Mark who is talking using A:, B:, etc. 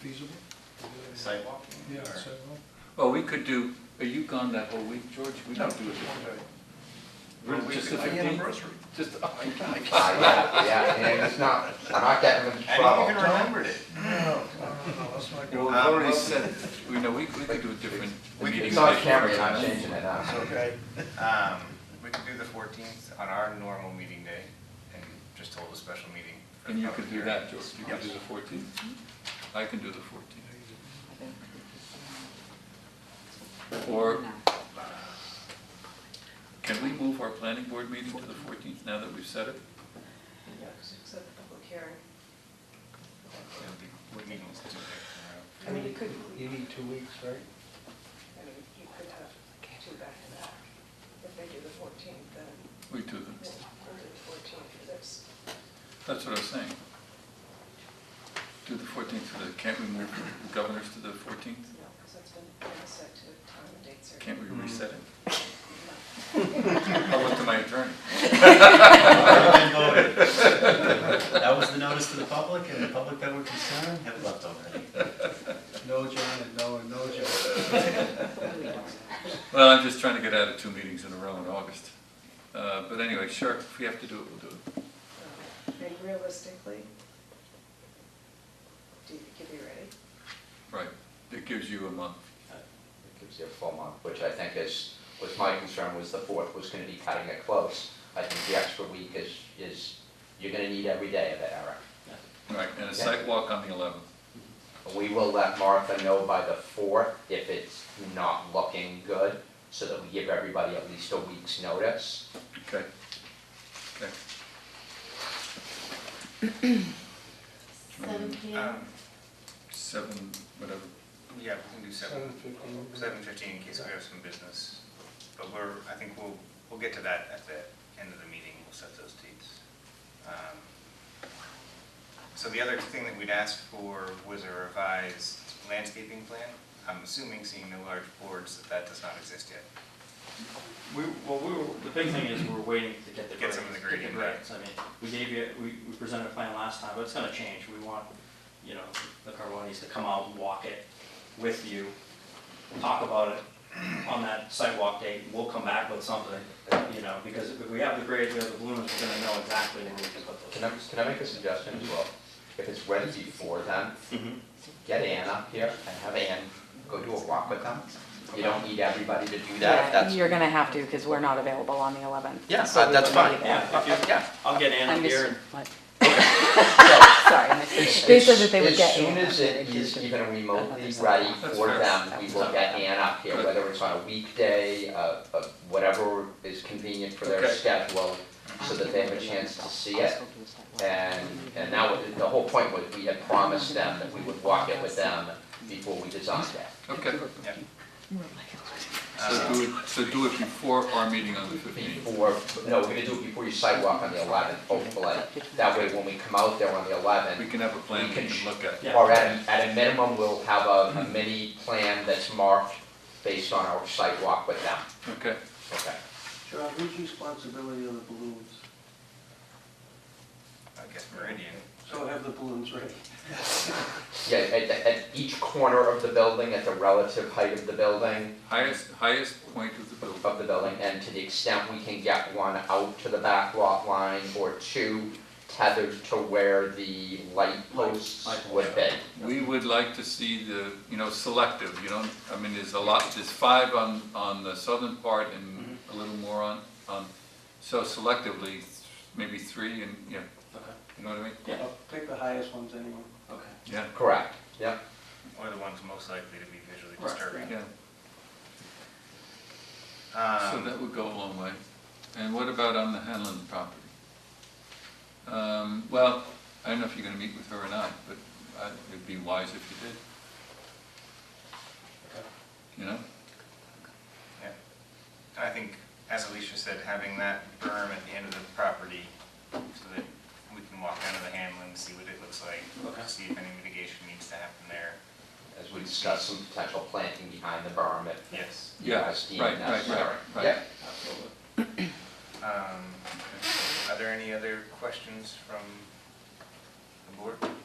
A: feasible?
B: Sidewalk? you mean,
A: Yeah,
B: or-
A: so, well,
C: Well, we could do, are you gone that whole week, George? We
B: No,
C: don't
B: just
C: do it.
B: one day.
C: Really,
B: Well, we
C: just
B: could-
C: the
B: my
C: 15th?
B: Anniversary.
C: Just, oh,
D: Uh, Yeah, yeah, and it's not, I'm not getting in
B: I didn't even
D: trouble.
B: remember it.
A: Oh, No, no, no, no, let's not
C: well,
A: go.
C: we
B: Um,
C: already said, we know, we, we could do a different
B: We could-
C: meeting.
D: It's on
C: date.
D: camera, you're not changing it
A: It's
D: now.
A: okay.
B: Um, we could do the fourteenth on our normal meeting day and just hold a special meeting. for
C: And you
B: public
C: could do
B: hearing.
C: that, George. You could do
B: Yes.
C: the fourteenth. I can do the fourteenth. Or can we move our planning board meeting to the fourteenth now that we've said it?
E: Except the public hearing.
B: It'll be- we're meeting this Tuesday, tomorrow.
E: I mean, you could,
A: You need two weeks, right?
E: I mean, you could have two back to back. If they do the fourteenth, then
C: We do that.
E: we'll we'll do the fourteenth for this.
C: That's what I was saying. Do the fourteenth to the, can't we move the governors to the fourteenth?
E: No, because that's been been set to a time and date certain.
C: Can't we reset it?
E: No.
C: I'll look to my attorney.
F: Already voted. That was the notice to the public, and the public that were concerned have left already.
A: No, John, and no, and no, John.
C: Well, I'm just trying to get out of two meetings in a row in August. Uh, But anyway, sure, if we have to do it, we'll do it.
E: Um, And realistically, do you think you'll be ready?
C: Right, it gives you a month.
D: It gives you a full month, which I think is, was my concern, was the fourth was gonna be cutting it close. I think the extra week is, is, you're gonna need every day of it, Eric.
C: Right, and a
D: Yeah.
C: site walk on the eleventh.
D: We will let Martha know by the fourth if it's not looking good, so that we give everybody at least a week's notice.
C: Okay. Okay.
G: Seven P M.
B: Um,
C: Seven, whatever.
B: Yeah, we can do
A: Seven
B: seven,
A: fifteen.
B: seven fifteen in case we have some business. But we're, I think we'll, we'll get to that at the end of the meeting, we'll set those dates. Um, So the other thing that we'd asked for was a revised landscaping plan. I'm assuming, seeing no large boards, that that does not exist yet.
H: We, well, we were, the big thing is we're waiting to get the
B: Get
H: grades.
B: some of the grading back.
H: grades. I mean, we gave you, we, we presented a plan last time, but it's gonna change. We want, you know, the Carbonis to come out and walk it with you, talk about it on that sidewalk date. We'll come back with something, you know, because if we have the grades, we have the balloons, we're gonna know exactly where we can put
D: Can I,
H: those.
D: can I make a suggestion as well? If it's ready before then,
H: Mhm.
D: get Ann up here and have Ann go do a walk with them. You don't need everybody to do that, if that's,
G: You're gonna have to, because we're not available on the eleventh.
D: yeah, uh, that's fine.
H: Yeah, if you-
D: Yeah.
H: I'll get Anna
G: I'm
H: here and
G: just, what?
D: So,
G: sorry, I
D: as-
G: missed- they said that they would
D: as-
G: get. Ann.
D: As soon as it is even remotely ready
C: That's
D: for
C: fair.
D: them, we will get Ann up here,
C: Good.
D: whether it's on a weekday, uh, uh, whatever is convenient for their
C: Okay.
D: schedule, so that they have a chance to see it. And, and that was, the whole point was, we had promised them that we would walk it with them before we designed it.
C: Okay.
B: Yep.
C: So
B: Um,
C: do it, so do it before our meeting on the fifteenth.
D: Before, no, we're gonna do it before your sidewalk on the eleventh, hopefully, that way when we come out there on the eleventh,
C: We can have a plan
D: We
C: we
D: can sh-
C: can look at.
H: Yeah.
D: Or at, a- at a minimum, we'll have a a mini plan that's marked based on our site walk with them.
C: Okay.
D: Okay.
I: John, whose responsibility are the balloons?
B: I guess Meridian.
I: So have the balloons ready.
D: Yeah, at, the- at each corner of the building, at the relative height of the building,
C: Highest, highest point of the building.
D: of the building, and to the extent we can get one out to the back lot line or two tethered to where the light posts
H: Light posts.
D: would be.
C: We would like to see the, you know, selective, you don't, I mean, there's a lot, there's five on, on the southern part and a little more on, on, so selectively, maybe three and, yeah,
H: Okay,
C: you know what I mean?
H: yeah,
I: I'll Pick the highest ones anyway.
H: okay.
C: Yeah,
D: Correct, yep.
B: Or the ones most likely to be visually
H: Right.
B: disturbing.
C: yeah, so
B: Um,
C: that would go a long way. And what about on the Hanlon property? Um, well, I don't know if you're gonna meet with her or not, but I- it'd be wise if you did. You know?
B: I think, as Alicia said, having that berm at the end of the property so that we can walk down to the Hamlin, see what it looks like,
H: Okay.
B: see if any mitigation needs to happen there.
D: As we discussed, some potential planting behind the berm if
B: Yes.
D: you
C: Yeah,
D: guys deem
C: right, right, right,
D: necessary.
C: right.
D: Yeah.
H: Absolutely.
B: Um, Are there any other questions from the board?